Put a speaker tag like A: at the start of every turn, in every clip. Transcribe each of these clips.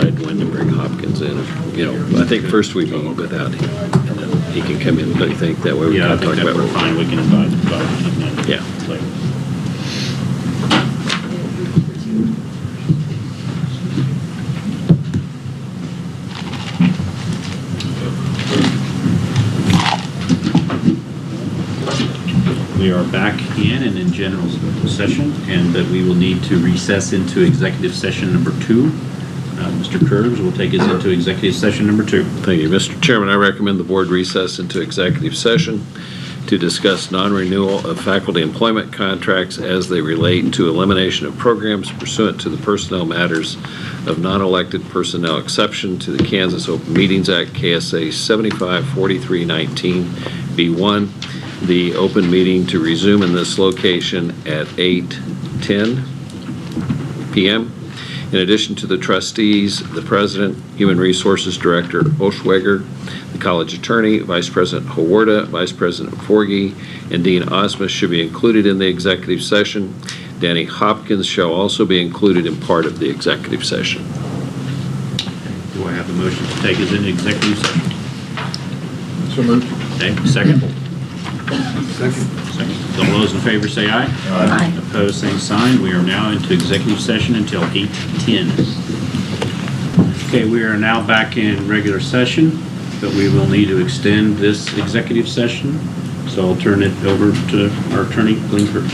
A: decide when to bring Hopkins in, if, you know, I think first we vote without him, and then he can come in, but I think that way we
B: Yeah, I
A: can talk
B: think that
A: about.
B: we're
A: what-
B: fine, we can advise about it. and then-
A: Yeah.
B: Like, We are back in and in general session, and that we will need to recess into executive session number two. Uh, Mr. Curbs will take us into executive session number two.
A: Thank you. Mr. Chairman, I recommend the board recess into executive session to discuss non-renewal of faculty employment contracts as they relate to elimination of programs pursuant to the personnel matters of non-elected personnel exception to the Kansas Open Meetings Act, KSA 754319B1. The open meeting to resume in this location at 8:10 PM. In addition to the trustees, the president, Human Resources Director Oshweger, the college attorney, Vice President Hawarda, Vice President Forgy, and Dean Osmus should be included in the executive session. Danny Hopkins shall also be included in part of the executive session.
B: Do I have a motion to take us into executive session?
C: So moved.
B: Okay, second? Second. Second. All those in favor say aye. Aye. Opposed, same sign. We are now into executive session until 8:10. Okay, we are now back in regular session, but we will need to extend this executive session. So I'll turn it over to our attorney, Glenn Kirsch.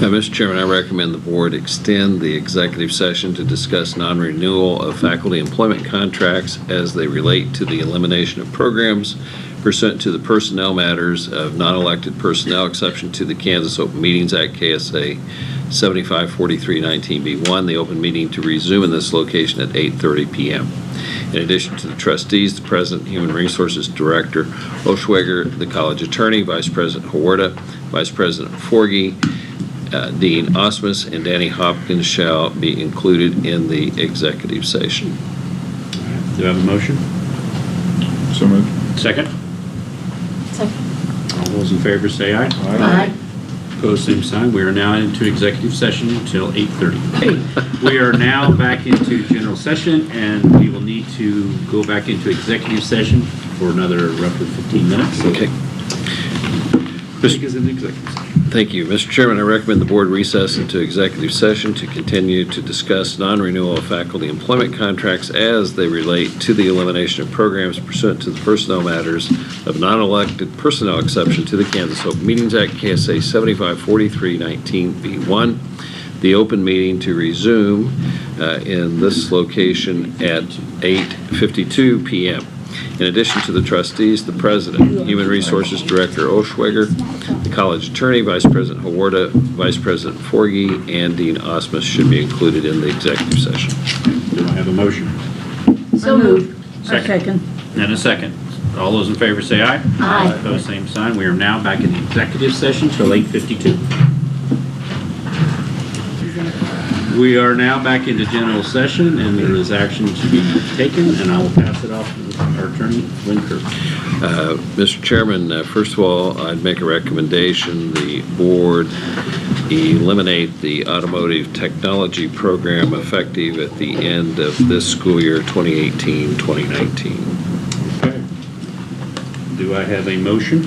A: Uh, Mr. Chairman, I recommend the board extend the executive session to discuss non-renewal of faculty employment contracts as they relate to the elimination of programs pursuant to the personnel matters of non-elected personnel exception to the Kansas Open Meetings Act, KSA 754319B1, the open meeting to resume in this location at 8:30 PM. In addition to the trustees, the president, Human Resources Director Oshweger, the college attorney, Vice President Hawarda, Vice President Forgy, uh, Dean Osmus and Danny Hopkins shall be included in the executive session.
B: Do I have a motion?
C: So moved.
B: Second?
D: Second.
B: All those in favor say aye. Opposed, same sign. We are now into executive session until 8:30. We are now back into general session, and we will need to go back into executive session for another roughly 15 minutes. So
A: Okay.
B: Take us into executive session.
A: Thank you. Mr. Chairman, I recommend the board recess into executive session to continue to discuss non-renewal of faculty employment contracts as they relate to the elimination of programs pursuant to the personnel matters of non-elected personnel exception to the Kansas Open Meetings Act, KSA 754319B1. The open meeting to resume uh, in this location at 8:52 PM. In addition to the trustees, the president, Human Resources Director Oshweger, the college attorney, Vice President Hawarda, Vice President Forgy, and Dean Osmus should be included in the executive session.
B: Do I have a motion?
D: So moved.
B: Second. And a second. All those in favor say aye.
D: Aye.
B: Opposed, same sign. We are now back in executive session till 8:52. We are now back into general session, and there is action to be taken, and I will pass it off to our attorney, Lynn Kirk.
A: Uh, Mr. Chairman, uh, first of all, I'd make a recommendation, the board eliminate the automotive technology program effective at the end of this school year, 2018-2019.
B: Okay. Do I have a motion?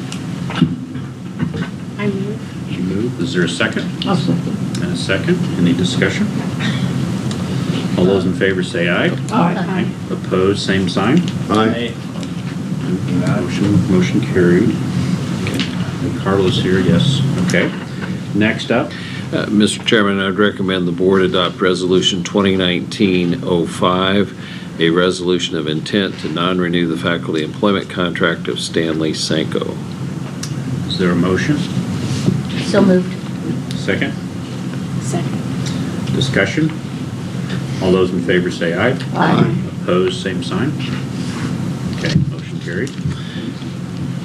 D: I move.
B: You move. Is there a second?
D: I'll second.
B: And a second. Any discussion? All those in favor say aye.
D: Aye.
B: Opposed, same sign. Aye. Motion, motion carried. Okay. Carlos here, yes. Okay. Next up,
A: Uh, Mr. Chairman, I'd recommend the board adopt Resolution 2019-05, a resolution of intent to non-renew the faculty employment contract of Stanley Sanko.
B: is there a motion?
D: So moved.
B: Second?
D: Second.
B: Discussion? All those in favor say aye.
D: Aye.
B: Opposed, same sign. Okay, motion carried.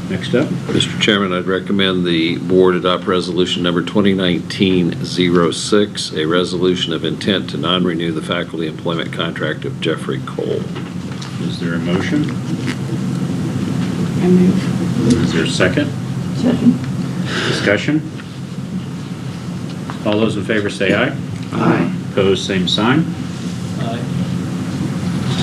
B: Next up,
A: Mr. Chairman, I'd recommend the board adopt Resolution Number 2019-06, a resolution of intent to non-renew the faculty employment contract of Jeffrey Cole.
B: is there a motion?
D: I move.
B: Is there a second?
D: Second.
B: Discussion? All those in favor say aye.
D: Aye.
B: Opposed, same sign.